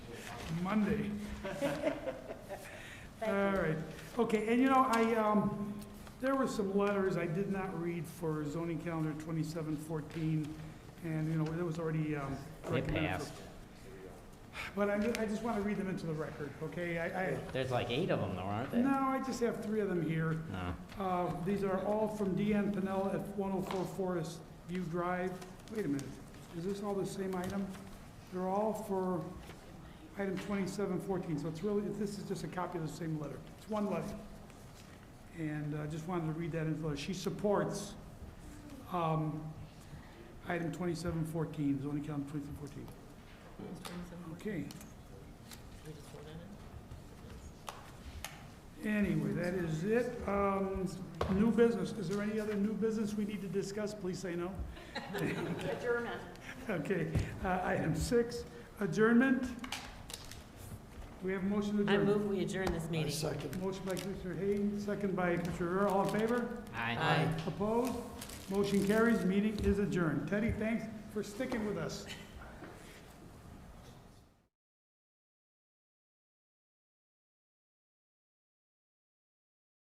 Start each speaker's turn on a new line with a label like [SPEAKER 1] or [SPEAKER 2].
[SPEAKER 1] Monday.
[SPEAKER 2] Thank
[SPEAKER 1] All
[SPEAKER 2] you.
[SPEAKER 1] right, okay, and you know, I, um, there were some letters I did not read for zoning calendar twenty-seven fourteen, and, you know, it was already, um,
[SPEAKER 3] They
[SPEAKER 1] recommended for-
[SPEAKER 3] passed.
[SPEAKER 1] But I, I just wanna read them into the record, okay? I, I,
[SPEAKER 3] There's like eight of them though, aren't there?
[SPEAKER 1] no, I just have three of them here.
[SPEAKER 3] No.
[SPEAKER 1] Uh, These are all from DN Pennell at 104 Forest View Drive. Wait a minute, is this all the same item? They're all for item 2714, so it's really, this is just a copy of the same letter. It's one letter. And I just wanted to read that info. She supports um, item 2714, zoning count 2714. Okay. Anyway, that is it. Um, New business, is there any other new business we need to discuss? Please say no.
[SPEAKER 2] Adjournment.
[SPEAKER 1] Okay, uh, item six, adjournment. We have a motion to
[SPEAKER 4] I
[SPEAKER 1] adjourn.
[SPEAKER 4] move we adjourn this meeting.
[SPEAKER 1] Motion by Commissioner Hayden, second by Commissioner Rivera, all in favor?
[SPEAKER 4] Aye.
[SPEAKER 1] Opposed? Motion carries, meeting is adjourned. Teddy, thanks for sticking with us.